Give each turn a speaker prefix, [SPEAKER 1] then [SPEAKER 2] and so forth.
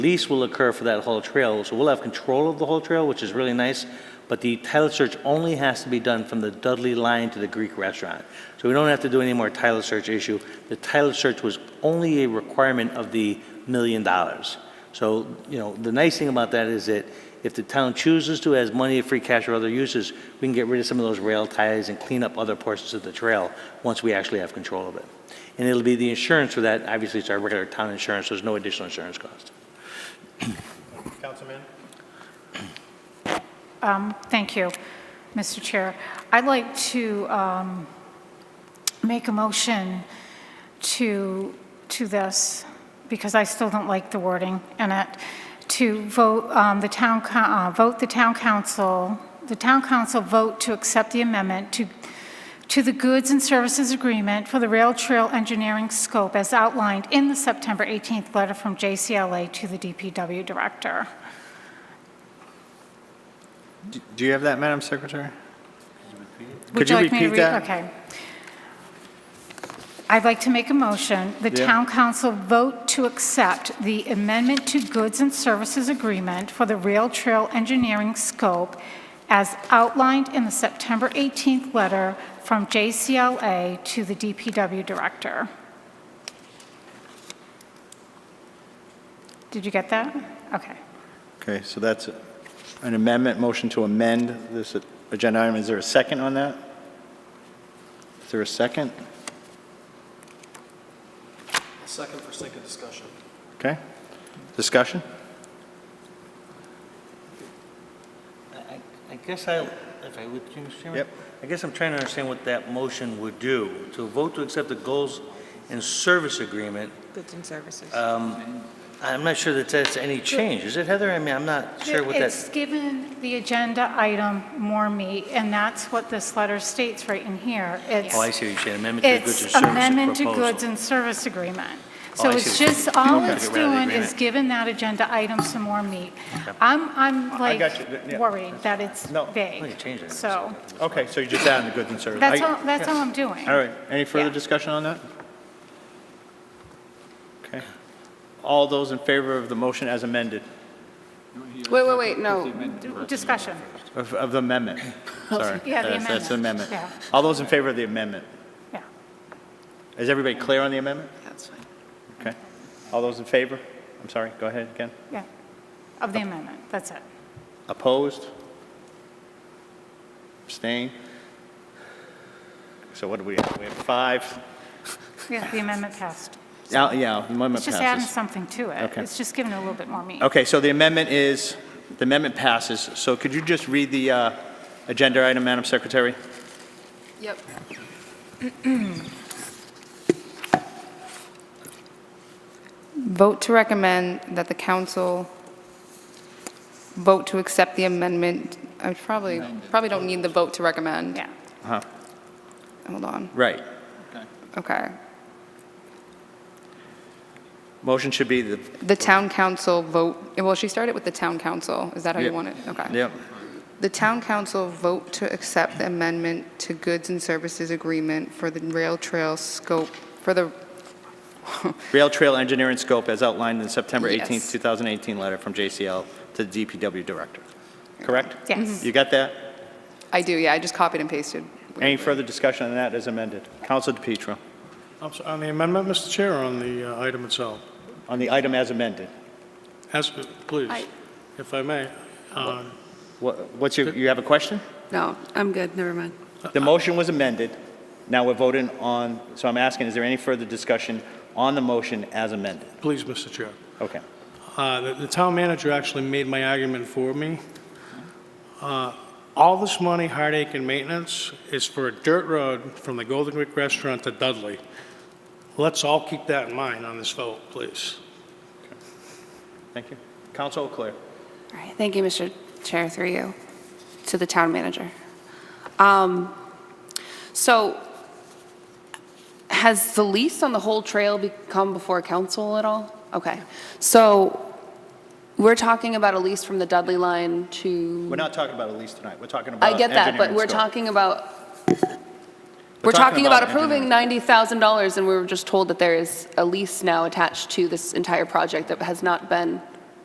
[SPEAKER 1] lease will occur for that whole trail. So we'll have control of the whole trail, which is really nice, but the title search only has to be done from the Dudley line to the Greek restaurant. So we don't have to do any more title search issue. The title search was only a requirement of the million dollars. So, you know, the nice thing about that is that if the town chooses to, as money, free cash, or other uses, we can get rid of some of those rail ties and clean up other portions of the trail once we actually have control of it. And it'll be the insurance for that, obviously it's our regular town insurance, so there's no additional insurance cost.
[SPEAKER 2] Councilman?
[SPEAKER 3] Thank you, Mr. Chair. I'd like to um, make a motion to, to this, because I still don't like the wording in it, to vote, um, the town, coun- uh, vote the town council, the town council vote to accept the amendment to, to the goods and services agreement for the rail trail engineering scope as outlined in the September 18th letter from JCLA to the DPW director.
[SPEAKER 2] Do you have that, Madam Secretary?
[SPEAKER 3] Would
[SPEAKER 2] Could you
[SPEAKER 3] like me to
[SPEAKER 2] repeat
[SPEAKER 3] read-
[SPEAKER 2] that?
[SPEAKER 3] Okay. I'd like to make a motion. The
[SPEAKER 2] Yeah.
[SPEAKER 3] town council vote to accept the amendment to goods and services agreement for the rail trail engineering scope as outlined in the September 18th letter from JCLA to the DPW director. Did you get that? Okay.
[SPEAKER 2] Okay, so that's an amendment, motion to amend this agenda item. Is there a second on that? Is there a second?
[SPEAKER 4] Second for sake of discussion.
[SPEAKER 2] Okay. Discussion?
[SPEAKER 1] I- I guess I, if I would, Mr. Chairman?
[SPEAKER 2] Yep.
[SPEAKER 1] I guess I'm trying to understand what that motion would do. To vote to accept the goals and service agreement,
[SPEAKER 5] Goods and services.
[SPEAKER 1] I'm not sure that that's any change. Is it, Heather? I mean, I'm not sure what
[SPEAKER 3] It's
[SPEAKER 1] that,
[SPEAKER 3] given the agenda item more meat, and that's what this letter states right in here. It's-
[SPEAKER 1] oh, I see what you're saying, amendment to the goods and
[SPEAKER 3] It's
[SPEAKER 1] services proposal.
[SPEAKER 3] amendment to goods and service agreement.
[SPEAKER 1] Oh,
[SPEAKER 3] So
[SPEAKER 1] I see what
[SPEAKER 3] it's
[SPEAKER 1] you're saying.
[SPEAKER 3] just, all
[SPEAKER 1] Okay.
[SPEAKER 3] it's
[SPEAKER 1] Get rid of the
[SPEAKER 3] doing is
[SPEAKER 1] agreement.
[SPEAKER 3] giving that agenda item some more meat. I'm, I'm
[SPEAKER 2] got you. Yeah.
[SPEAKER 3] like worried that it's
[SPEAKER 2] No.
[SPEAKER 1] Oh, you
[SPEAKER 3] vague.
[SPEAKER 1] changed it.
[SPEAKER 3] So
[SPEAKER 2] Okay, so you're just adding the goods and services.
[SPEAKER 3] that's
[SPEAKER 2] I-
[SPEAKER 3] all, that's all I'm doing.
[SPEAKER 2] All right, any further
[SPEAKER 3] Yeah.
[SPEAKER 2] discussion on that? Okay. All those in favor of the motion as amended,
[SPEAKER 5] Wait, wait, wait, no.
[SPEAKER 3] Discussion.
[SPEAKER 2] of of the amendment, sorry.
[SPEAKER 3] Yeah, the
[SPEAKER 2] That's- That's the amendment.
[SPEAKER 3] amendment. Yeah.
[SPEAKER 2] All those in favor of the amendment?
[SPEAKER 3] Yeah.
[SPEAKER 2] Is everybody clear on the amendment?
[SPEAKER 5] That's fine.
[SPEAKER 2] Okay. All those in favor? I'm sorry, go ahead again.
[SPEAKER 3] Yeah. Of the amendment. That's it.
[SPEAKER 2] Opposed? Abstain? So what do we have? We have five.
[SPEAKER 3] Yeah, the amendment passed.
[SPEAKER 2] Yeah, yeah, the amendment
[SPEAKER 3] It's just adding
[SPEAKER 2] passes.
[SPEAKER 3] something to it.
[SPEAKER 2] Okay.
[SPEAKER 3] It's just giving it a little bit more meat.
[SPEAKER 2] Okay, so the amendment is, the amendment passes. So could you just read the uh, agenda item, Madam Secretary?
[SPEAKER 5] Yep. Vote to recommend that the council vote to accept the amendment. I probably, probably don't need the vote to recommend.
[SPEAKER 3] Yeah.
[SPEAKER 5] Hold on,
[SPEAKER 2] Right.
[SPEAKER 5] okay.
[SPEAKER 2] Motion should be the,
[SPEAKER 5] The town council vote, well, she started with the town council. Is that how you
[SPEAKER 2] Yep.
[SPEAKER 5] want it? Okay.
[SPEAKER 2] yep,
[SPEAKER 5] The town council vote to accept the amendment to goods and services agreement for the rail trail scope, for the
[SPEAKER 2] rail trail engineering scope as outlined in the September 18th,
[SPEAKER 5] Yes.
[SPEAKER 2] 2018 letter from JCL to the DPW director. Correct?
[SPEAKER 3] Yes.
[SPEAKER 2] You got that?
[SPEAKER 5] I do, yeah, I just copied and pasted.
[SPEAKER 2] Any further discussion on that as amended? Counsel DePietro,
[SPEAKER 6] I'm sorry, On the amendment, Mr. Chair, or on the uh, item itself?
[SPEAKER 2] on the item as amended,
[SPEAKER 6] As, please,
[SPEAKER 5] I-
[SPEAKER 6] if I may. Uh,
[SPEAKER 2] Wha- what's your, you have a question?
[SPEAKER 7] No, I'm good, never mind.
[SPEAKER 2] The motion was amended, now we're voting on, so I'm asking, is there any further discussion on the motion as amended?
[SPEAKER 6] Please, Mr. Chair.
[SPEAKER 2] Okay.
[SPEAKER 6] Uh, The the town manager actually made my argument for me. Uh, All this money, heartache, and maintenance is for a dirt road from the Golden Creek Restaurant to Dudley. Let's all keep that in mind on this vote, please.
[SPEAKER 2] Thank you. Counsel O'Clair.
[SPEAKER 7] All right, thank you, Mr. Chair, through you, to the town manager. Um, So has the lease on the whole trail be- come before council at all? Okay, so we're talking about a lease from the Dudley line to...
[SPEAKER 2] We're not talking about a lease tonight, we're talking about
[SPEAKER 7] I get that, but
[SPEAKER 2] engineering
[SPEAKER 7] Uh, we're
[SPEAKER 2] scope.
[SPEAKER 7] talking about, we're talking about approving $90,000, and we were just told that there is a lease now attached to this entire project that has not been